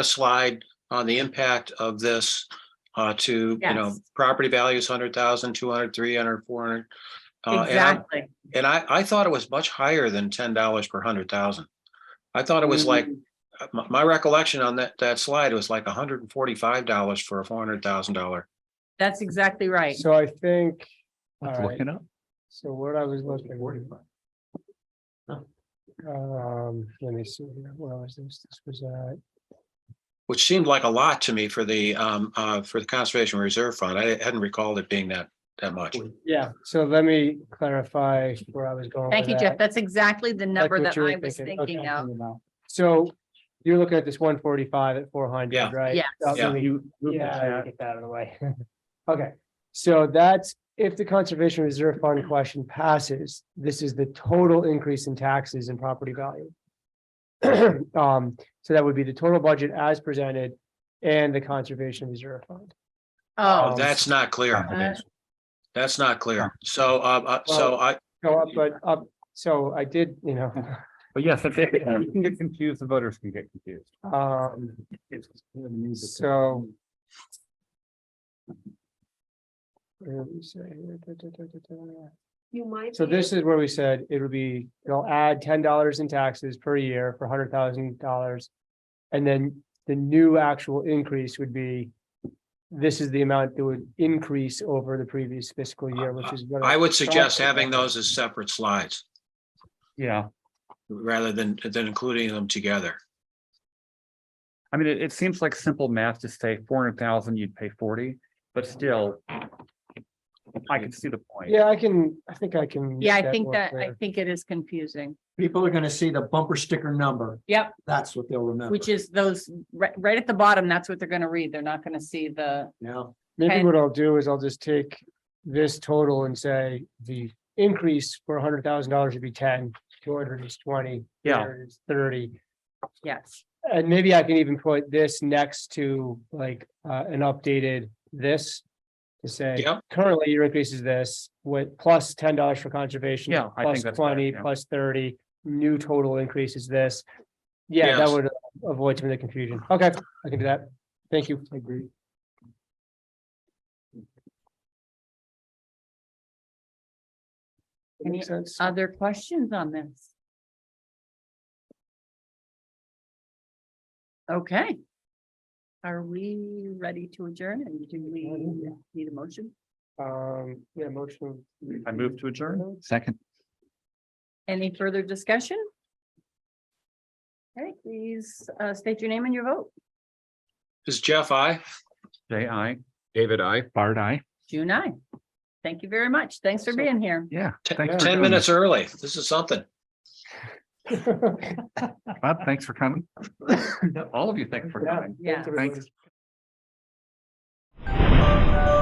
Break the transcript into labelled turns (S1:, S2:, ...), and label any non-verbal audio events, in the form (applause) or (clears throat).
S1: a slide on the impact of this uh, to, you know,
S2: Yes.
S1: property values, 100,000, 200, 300, 400. Uh, and I-
S2: Exactly.
S1: And I, I thought it was much higher than ten dollars per hundred thousand. I thought it was like,
S2: Mm. Mm-hmm.
S1: uh, my, my recollection on that, that slide was like hundred and forty-five dollars for a four hundred thousand dollar.
S2: That's exactly right.
S3: So I think, all
S4: Let's
S3: right.
S4: look it up.
S3: So what I was looking. Um, let me see here, where was this, this was, uh,
S1: Which seemed like a lot to me for the, um, uh, for the Conservation Reserve Fund. I hadn't recalled it being that, that much.
S3: yeah, so let me clarify where I was going. with
S2: Thank
S5: uh,
S2: you,
S3: that.
S2: Jeff. That's exactly the
S3: Like
S2: number
S3: what
S2: that
S3: you were
S2: I was thinking
S3: okay.
S2: of.
S3: So you're looking at this one forty-five at four
S1: Yeah.
S3: hundred, right?
S2: Yes.
S3: Uh,
S1: Yeah.
S3: let me-
S4: You. look at
S3: Yeah,
S4: that.
S3: get that out of the way. (laughs) Okay, so that's, if the Conservation Reserve Fund question passes, this is the total increase in taxes and property value. (clears throat) Um, so that would be the total budget as presented and the Conservation Reserve Fund.
S1: Oh,
S2: Oh,
S1: That's not
S4: Uh-huh.
S1: clear.
S2: Uh,
S1: That's not clear. So, uh, uh, so I,
S3: Go up, but up, so I did, you know, (laughs)
S4: Uh, But yes, if they, you can get confused, the voters can get confused.
S3: um,
S4: It's- it's-
S3: so. Where do we say here? Da, da, da, da, da.
S6: You might.
S3: So
S6: be
S3: this
S6: able-
S3: is where we said it would be, it'll add ten dollars in taxes per year for hundred thousand dollars. And then the new actual increase would be, this is the amount that would increase over the previous fiscal year, which is. what
S1: I would suggest
S3: thought.
S1: having those as separate slides
S4: Yeah,
S1: rather than, than including them together.
S4: I mean, it, it seems like simple math to say four hundred thousand, you'd pay forty, but still. I can see the point.
S3: Yeah, I can, I think I can. make
S2: Yeah, I think
S3: more
S2: that, I
S3: clear.
S2: think it is confusing.
S5: People are gonna see the bumper sticker number.
S2: Yep.
S5: That's what they'll remember.
S2: Which is those, right, right at the bottom, that's what they're gonna read. They're not gonna see the,
S5: Now,
S3: Maybe
S2: and-
S3: what I'll do is I'll just take this total and say the increase for hundred thousand dollars would be ten, two hundred is twenty.
S4: Yeah.
S3: 300 is Thirty.
S2: yes.
S3: And maybe I can even put this next to like uh an updated this. To say,
S1: Yep.
S3: currently your increase is this with plus ten dollars for conservation.
S4: Yeah, I think
S3: Plus
S4: that's better,
S3: twenty,
S4: yeah.
S3: plus thirty, new total increase is this. Yeah, that
S1: Yes.
S3: would avoid some of the confusion. Okay, I can do that. Thank you. I agree.
S2: Any
S3: Makes sense.
S4: Uh,
S2: Other questions on this? Okay. Are we ready to adjourn and do we need a motion?
S3: Um, yeah, motion.
S4: I move to adjourn.
S3: (laughs)
S4: Second.
S2: Any further discussion? Okay, please uh, state your name and your vote.
S1: Is Jeff, I?
S4: J I,
S7: David, I.
S4: Bard I.
S2: June I. Thank you very much. Thanks for
S3: So-
S2: being here.
S4: Yeah. thanks for
S1: Ten
S4: doing
S1: minutes early. This is something.
S4: this. Bob, thanks for coming. All of you, thanks for coming.
S2: Yeah.
S4: Thanks.